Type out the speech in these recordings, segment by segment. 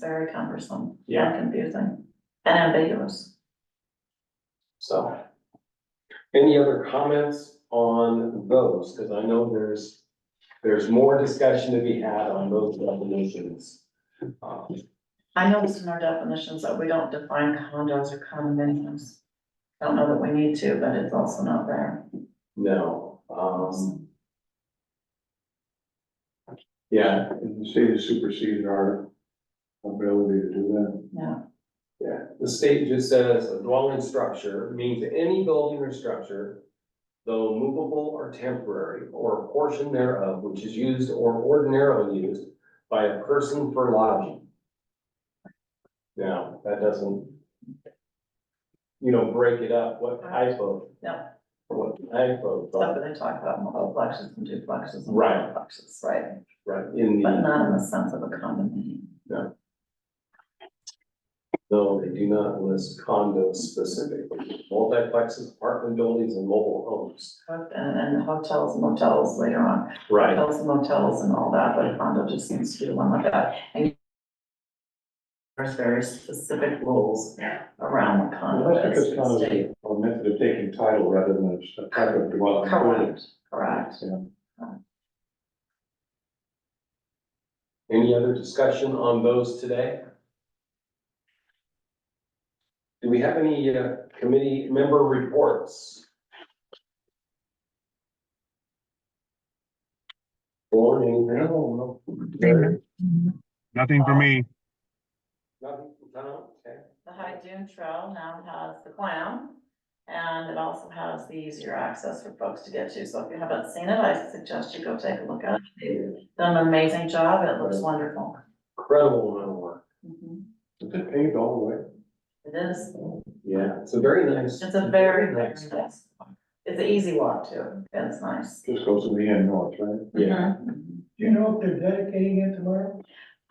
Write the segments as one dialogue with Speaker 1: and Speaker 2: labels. Speaker 1: very cumbersome
Speaker 2: Yeah.
Speaker 1: and confusing and ambiguous.
Speaker 2: So. Any other comments on those? Cause I know there's, there's more discussion to be had on those definitions. Um,
Speaker 1: I know it's in our definitions that we don't define condos or condominiums. Don't know that we need to, but it's also not there.
Speaker 2: no, um, yeah,
Speaker 3: And the state has superseded our ability to do that.
Speaker 1: Yeah,
Speaker 2: yeah. The state just says a dwelling structure means any building or structure. Though movable or temporary, or a portion thereof which is used or ordinarily used by a person for lodging. Now, that doesn't. You know, break it up, what type of.
Speaker 1: No.
Speaker 2: What type of,
Speaker 1: stuff
Speaker 2: uh,
Speaker 1: that they talk about, multiplexes and duplexes. and
Speaker 2: Right.
Speaker 1: fourplexes, right,
Speaker 2: right, in
Speaker 1: but
Speaker 2: the,
Speaker 1: not in the sense of a condominium.
Speaker 2: no, they do not list condos specifically, multiplexes, apartment buildings and mobile homes.
Speaker 1: And, and hotels, motels later on,
Speaker 2: Right.
Speaker 1: hotels and motels and all that, but a condo just seems to be one like that. And There's very specific rules around the condo.
Speaker 3: That's because
Speaker 1: as
Speaker 3: kind of
Speaker 1: state.
Speaker 3: a method of taking title rather than a type of dwelling.
Speaker 1: Correct, correct.
Speaker 2: Any other discussion on those today? Do we have any uh, committee member reports? Or anything? No, no.
Speaker 4: Nothing for me.
Speaker 2: Nothing from town? Okay.
Speaker 1: The High Dune Trail now has the clam, and it also has the easier access for folks to get to, so if you haven't seen it, I suggest you go take a look at it. They've Done an amazing job, it looks wonderful.
Speaker 2: Incredible amount of work.
Speaker 1: Mhm.
Speaker 3: Is it paved all the way?
Speaker 1: It is,
Speaker 2: Yeah, it's a very nice.
Speaker 1: it's a very, very
Speaker 2: nice.
Speaker 1: nice, it's an easy walk too, it's nice.
Speaker 3: Just goes to the end north, right?
Speaker 2: Yeah,
Speaker 1: Mhm.
Speaker 3: Do you know if they're dedicating it tomorrow?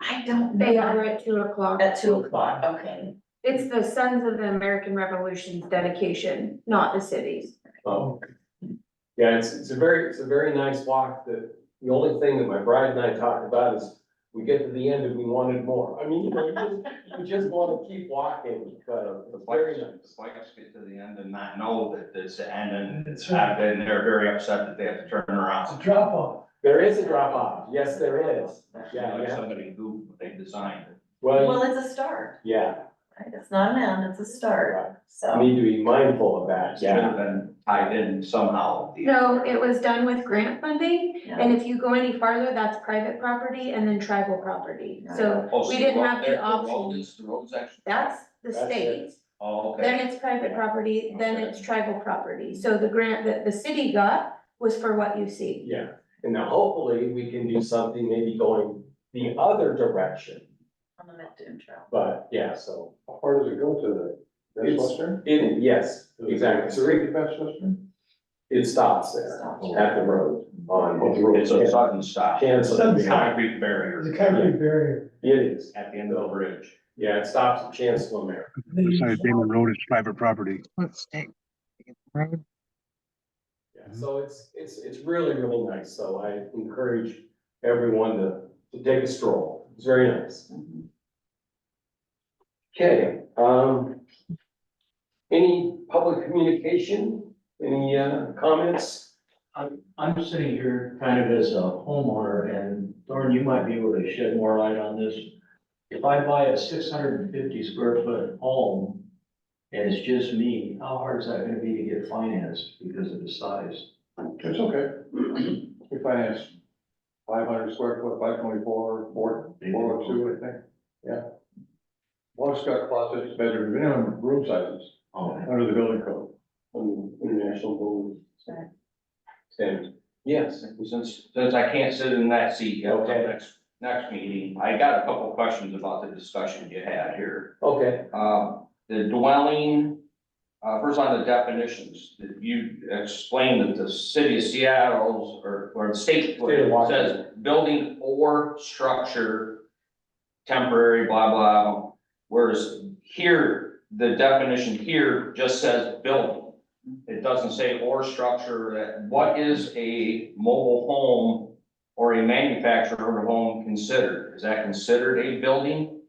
Speaker 1: I don't know.
Speaker 5: They are at two o'clock.
Speaker 1: At two o'clock, okay.
Speaker 5: It's the Sons of the American Revolution's dedication, not the city's.
Speaker 2: um, yeah, it's, it's a very, it's a very nice walk that, the only thing that my bride and I talked about is we get to the end and we wanted more. I mean, you know, you just, you just wanna keep walking, uh, it's very nice.
Speaker 6: Bikes get to the end and not know that it's the end and it's happened, they're very upset that they have to turn around.
Speaker 3: drop off.
Speaker 2: There is a drop off, yes, there is, yeah,
Speaker 6: Like
Speaker 2: yeah,
Speaker 6: Somebody who they designed it.
Speaker 1: Well,
Speaker 2: well,
Speaker 1: it's a start,
Speaker 2: yeah,
Speaker 1: right? It's not an end, it's a start,
Speaker 2: right.
Speaker 1: so.
Speaker 2: need to be mindful of that,
Speaker 6: Should
Speaker 2: yeah.
Speaker 6: have been tied in somehow.
Speaker 5: No, it was done with grant funding,
Speaker 1: yeah.
Speaker 5: and if you go any farther, that's private property and then tribal property. So
Speaker 6: Oh, so
Speaker 5: we didn't
Speaker 6: the road-
Speaker 5: have
Speaker 6: there-
Speaker 5: the
Speaker 6: road
Speaker 5: option.
Speaker 6: is- The road's actually.
Speaker 5: That's the
Speaker 2: That's it.
Speaker 5: state,
Speaker 6: Oh, okay.
Speaker 5: then it's private property, then
Speaker 6: Okay.
Speaker 5: it's tribal property. So the grant that the city got was for what you see.
Speaker 2: Yeah, and now hopefully we can do something maybe going the other direction,
Speaker 1: On the mid-dune trail.
Speaker 2: but yeah, so.
Speaker 3: How far does it go to the
Speaker 2: It's-
Speaker 3: Westchester?
Speaker 2: It, yes, exactly, so
Speaker 3: Three
Speaker 2: it,
Speaker 3: to Westchester?
Speaker 2: it stops there
Speaker 1: Stop.
Speaker 2: at the road on.
Speaker 3: Oh, the road.
Speaker 6: It's a sudden stop.
Speaker 2: Cancel.
Speaker 6: It's a Concrete barrier.
Speaker 7: The concrete barrier,
Speaker 2: It is,
Speaker 6: At the end of the bridge.
Speaker 2: yeah, it stops at Chancellor Mary.
Speaker 4: Besides Damon Road is private property.
Speaker 8: Let's take. Road.
Speaker 2: Yeah, so it's, it's, it's really, really nice, so I encourage everyone to, to take a stroll, it's very nice.
Speaker 1: Mhm.
Speaker 2: Okay, um, any public communication, any, uh, comments?
Speaker 9: I'm, I'm sitting here kind of as a homeowner and Thorne, you might be able to shed more light on this. If I buy a six hundred and fifty square foot home and it's just me, how hard is that gonna be to get financed because of the size?
Speaker 3: It's okay. We finance five hundred square foot, five twenty-four, four, four oh two, I think, yeah. Water got closets, bedroom, minimum room sizes
Speaker 9: Oh,
Speaker 3: under the building code.
Speaker 2: Um, International building
Speaker 1: Sure.
Speaker 2: standards. Yes.
Speaker 6: Since, since I can't sit in that seat yet,
Speaker 2: Okay.
Speaker 6: next, next meeting, I got a couple questions about the discussion you had here.
Speaker 2: Okay,
Speaker 6: Uh, the dwelling, uh, first on the definitions, that you explained that the city of Seattle's or, or the state
Speaker 2: State of Washington.
Speaker 6: says building or structure, temporary, blah, blah, whereas here, the definition here just says building. It doesn't say or structure, that, what is a mobile home or a manufactured home considered? Is that considered a building?